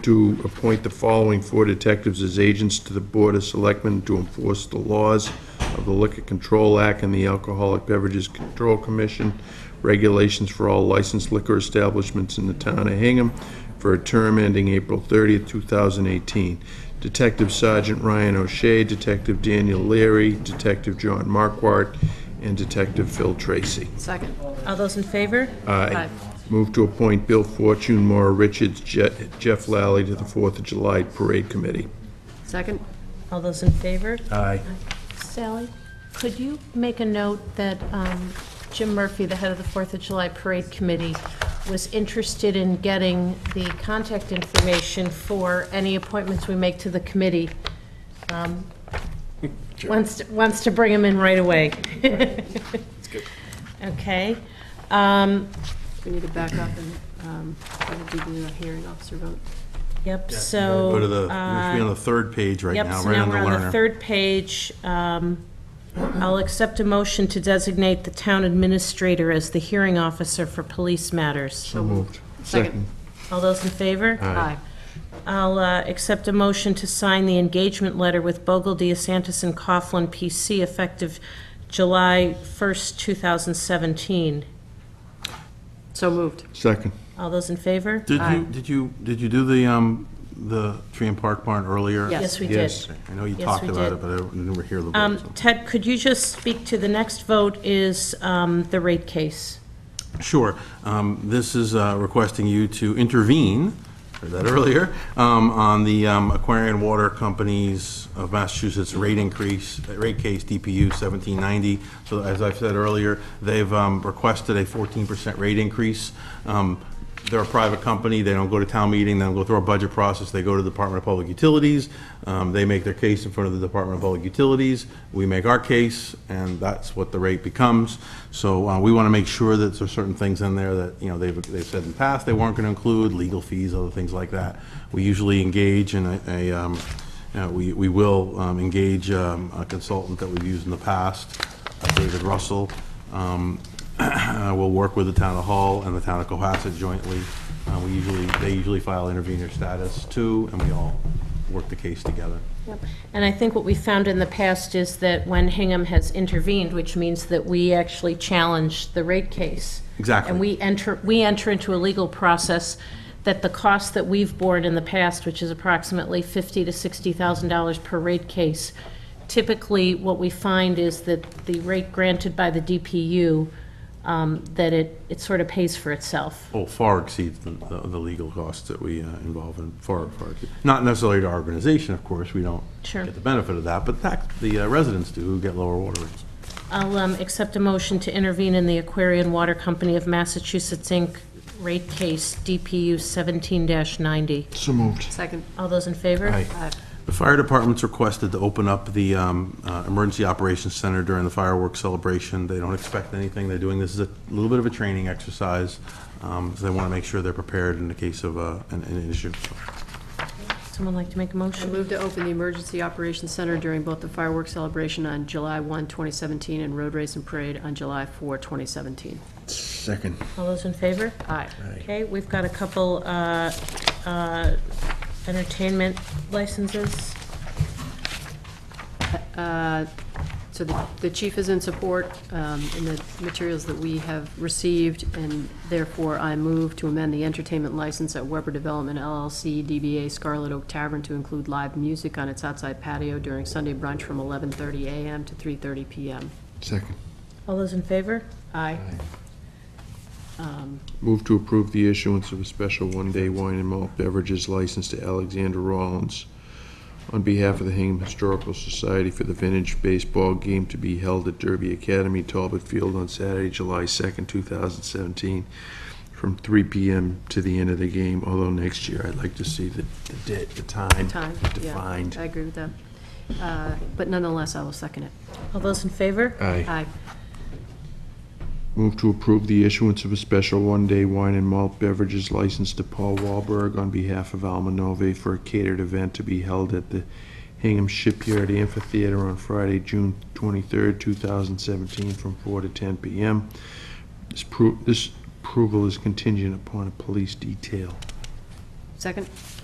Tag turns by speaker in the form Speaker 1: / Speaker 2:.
Speaker 1: to appoint the following four detectives as agents to the Board of Selectmen to enforce the laws of the Liquor Control Act and the Alcoholic Beverages Control Commission, regulations for all licensed liquor establishments in the town of Hingham for a term ending April 30th, 2018. Detective Sergeant Ryan O'Shea, Detective Daniel Leary, Detective John Marquardt, and Detective Phil Tracy.
Speaker 2: Second.
Speaker 3: All those in favor?
Speaker 1: Aye. Move to appoint Bill Fortune, Maura Richards, Je- Jeff Lally to the Fourth of July Parade Committee.
Speaker 2: Second?
Speaker 3: All those in favor?
Speaker 4: Uh,
Speaker 1: Aye.
Speaker 5: Sally, could you make a note that um, Jim Murphy, the head of the Fourth of July Parade Committee, was interested in getting the contact information for any appointments we make to the committee? Um, Wants, to- wants to bring him in right away. Okay. Um,
Speaker 2: We need to back up and um, we'll do the hearing officer vote.
Speaker 3: Yep, so...
Speaker 4: Go to the, we're
Speaker 3: uh,
Speaker 4: on the third page right
Speaker 3: Yep,
Speaker 4: now,
Speaker 3: so
Speaker 4: right
Speaker 3: now
Speaker 4: on the
Speaker 3: we're on the
Speaker 4: learner.
Speaker 3: third page. Um, I'll accept a motion to designate the town administrator as the hearing officer for police matters.
Speaker 1: So moved.
Speaker 2: Second.
Speaker 3: All those in favor?
Speaker 2: Aye.
Speaker 3: I'll uh, accept a motion to sign the engagement letter with Bogle, DeSantis, and Coughlin, PC, effective July 1st, 2017.
Speaker 2: So moved.
Speaker 1: Second.
Speaker 3: All those in favor?
Speaker 4: Did you, did you, did you do the, um, the tree and park barn earlier?
Speaker 2: Yes.
Speaker 3: Yes, we
Speaker 1: Yes.
Speaker 3: did.
Speaker 4: I know you
Speaker 3: Yes,
Speaker 4: talked
Speaker 3: we
Speaker 4: about
Speaker 3: did.
Speaker 4: it, but I didn't hear the vote.
Speaker 3: Um,
Speaker 4: so.
Speaker 3: Ted, could you just speak to, the next vote is um, the rate case.
Speaker 4: Sure. Um, This is uh, requesting you to intervene, heard that earlier, um, on the um, Aquarian Water Companies of Massachusetts rate increase, uh, rate case DPU 1790. So as I've said earlier, they've um, requested a 14% rate increase. Um, They're a private company, they don't go to town meeting, they don't go through our budget process, they go to the Department of Public Utilities, um, they make their case in front of the Department of Public Utilities, we make our case, and that's what the rate becomes. So uh, we want to make sure that there's certain things in there that, you know, they've, they've said in the past they weren't going to include, legal fees, other things like that. We usually engage in a- a, um, you know, we, we will um, engage um, a consultant that we've used in the past, uh, David Russell, um, uh, We'll work with the town of Hull and the town of Cohasset jointly. Uh, We usually, they usually file intervenor status too, and we all work the case together.
Speaker 3: And I think what we found in the past is that when Hingham has intervened, which means that we actually challenge the rate case.
Speaker 4: Exactly.
Speaker 3: And we enter, we enter into a legal process that the cost that we've borne in the past, which is approximately fifty to sixty thousand dollars per rate case, typically what we find is that the rate granted by the DPU, um, that it, it sort of pays for itself.
Speaker 4: Oh, far exceeds the, the the legal costs that we uh, involve in, far, far. exceed- Not necessarily to our organization, of course, we don't
Speaker 3: Sure.
Speaker 4: get the benefit of that, but tax, the uh, residents do who get lower water rates.
Speaker 3: I'll um, accept a motion to intervene in the Aquarian Water Company of Massachusetts, Inc. rate case DPU 17-90.
Speaker 1: So moved.
Speaker 2: Second.
Speaker 3: All those in favor?
Speaker 4: Aye.
Speaker 2: Aye.
Speaker 4: The fire department's requested to open up the um, uh, Emergency Operations Center during the fireworks celebration. They don't expect anything. They're doing, this is a little bit of a training exercise, um, so they want to make sure they're prepared in the case of uh, an an issue.
Speaker 3: Someone like to make a
Speaker 2: I
Speaker 3: motion?
Speaker 2: move to open the Emergency Operations Center during both the fireworks celebration on July 1, 2017, and road race and parade on July 4, 2017.
Speaker 1: Second.
Speaker 3: All those in favor?
Speaker 2: Aye.
Speaker 3: Okay, we've got a couple uh, uh, entertainment licenses.
Speaker 2: So the- the chief is in support um, in the materials that we have received, and therefore I move to amend the entertainment license at Weber Development LLC, DBA Scarlet Oak Tavern, to include live music on its outside patio during Sunday brunch from 11:30 a.m. to 3:30 p.m.
Speaker 1: Second.
Speaker 3: All those in favor?
Speaker 2: Aye.
Speaker 1: Move to approve the issuance of a special one-day wine and malt beverages license to Alexander Rollins on behalf of the Hingham Historical Society for the vintage baseball game to be held at Derby Academy, Talbot Field on Saturday, July 2nd, 2017, from 3 PM to the end of the game, although next year I'd like to see the the date, the time
Speaker 2: Time, yeah.
Speaker 1: defined.
Speaker 2: I agree with that. Uh, But nonetheless, I will second it.
Speaker 3: All those in favor?
Speaker 1: Aye.
Speaker 2: Aye.
Speaker 1: Move to approve the issuance of a special one-day wine and malt beverages license to Paul Wahlberg on behalf of Almanove for a catered event to be held at the Hingham Shipyard Amphitheater on Friday, June 23rd, 2017, from 4 to 10 p.m. This pro- This approval is contingent upon a police detail.
Speaker 2: Second?